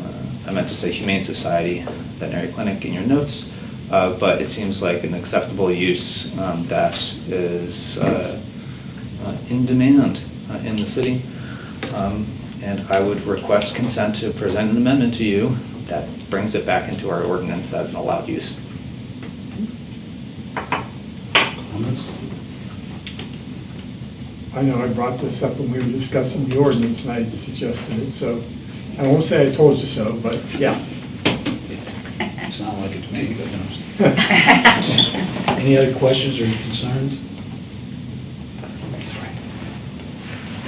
Uh, I meant to say Humane Society Veterinary Clinic in your notes, uh, but it seems like an acceptable use um, that is uh, uh, in demand uh, in the city. Um, And I would request consent to present an amendment to you that brings it back into our ordinance as an allowed use. Comments? I know I brought this up when we were discussing the ordinance and I suggested it, so I won't say I told you so, but yeah. It sounded like it to me, but no. Sorry. Any other questions or concerns?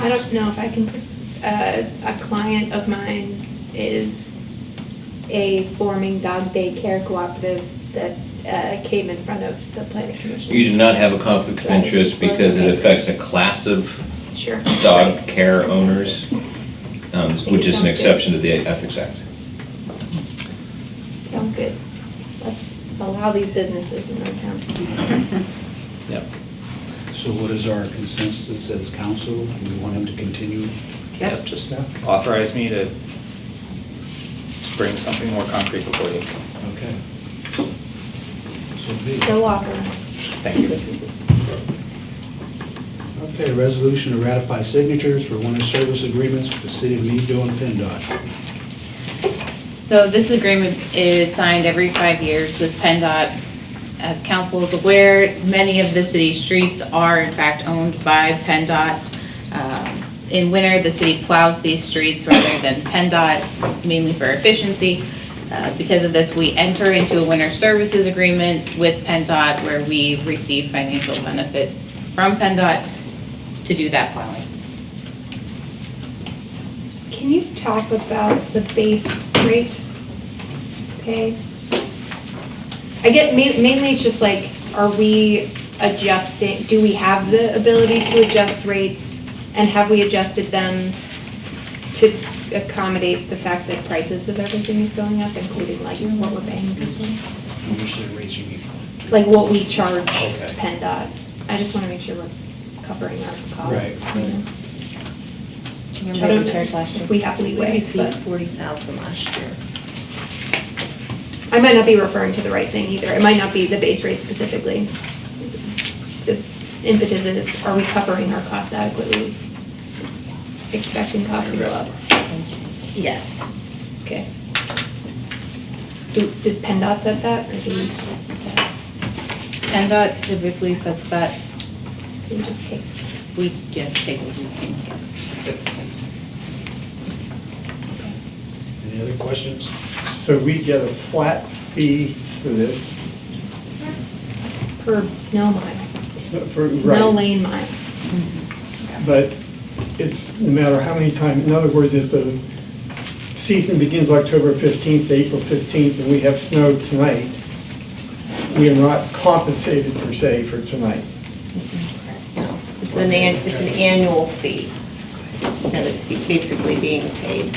I don't know if I can, uh, a client of mine is a forming dog daycare cooperative that uh, came in front of the planning commission. You do not have a conflict of Right, interest it's because it okay. affects a class of Sure. dog care owners, um, think it which is an sounds good. exception to the Ethics Act. Sounds good. Let's allow these businesses in our town. Yep. So what is our consensus as council? Do we want him to continue? Yep. Yep, Just Yeah. authorize me to to bring something more concrete before you. Okay. So be it. So uh, authorized. Thank you. Okay, resolution to ratify signatures for winter service agreements with the city of Meadville and PennDOT. So this agreement is signed every five years with PennDOT. As council is aware, many of the city's streets are in fact owned by PennDOT. Um, In winter, the city plows these streets rather than PennDOT, it's mainly for efficiency. Uh, Because of this, we enter into a winter services agreement with PennDOT where we receive financial benefit from PennDOT to do that plowing. Can you talk about the base rate pay? I get, ma- mainly it's just like, are we adjusting, do we have the ability to adjust rates? And have we adjusted them to accommodate the fact that prices of everything is going up, including like what we're paying people? How much they raise you need? Like what we charge Okay. PennDOT? I just want to make sure we're covering our costs. Right, you right. know? Remember I don't the know chairs last year? if We have We leeway, received but. forty thousand last year. I might not be referring to the right thing either. It might not be the base rate specifically. The impetus is, are we covering our costs adequately? Expecting costs to go up. Yes. Okay. Do, does PennDOT set that or do we set that? PennDOT typically sets that, Do we just take? we just take what we can get. Any other questions? So we get a flat fee for this, Per snow mile, so for, snow right, lane mile. but it's no matter how many times, in other words, if the season begins October fifteenth to April fifteenth and we have snow tonight, we are not compensated per se for tonight. It's an an, it's an annual fee that is be- basically being paid.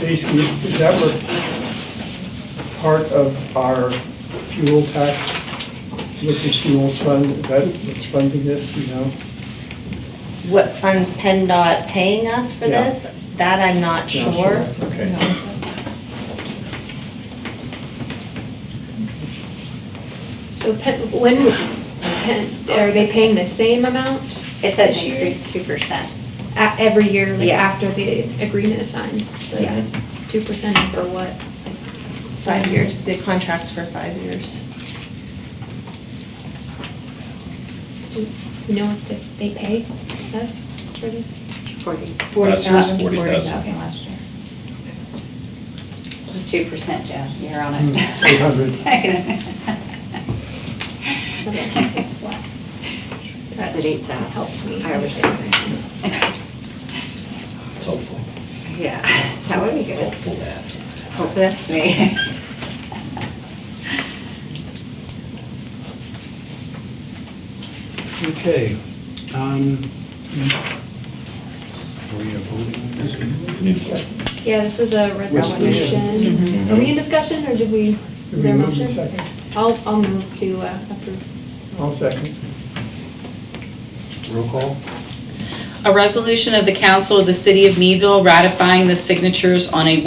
Basically, is that where part of our fuel tax, liquid fuels fund, is that what's funding this, do you know? What funds PennDOT paying us for Yeah. this? That I'm not Not sure. Okay. So Penn, when, Penn, are they paying the same amount? It says this year? increase two percent. A- Every year, like Yeah. after the agreement is signed? like, Yeah. Two percent for what? Five years, the contract's for five years. Do you know what the- they pay us for this? Forty. Forty Last year's thousand. Forty thousand. Thousand last year. It's two percent, Jeff, you're on Hmm, it. 200. That's what. It's at eight thousand. Helps me. I was understand. It's helpful, Yeah, that's how we do it. helpful that. Hope that's me. Okay. um, Were you voting on this? Need a second? Yeah, this was a resolution. Resolution. Were we in discussion or did we, Did was we there a move in motion? second? I'll, I'll move to uh, approve. I'll second. Roll call? A resolution of the council of the city of Meadville ratifying the signatures on a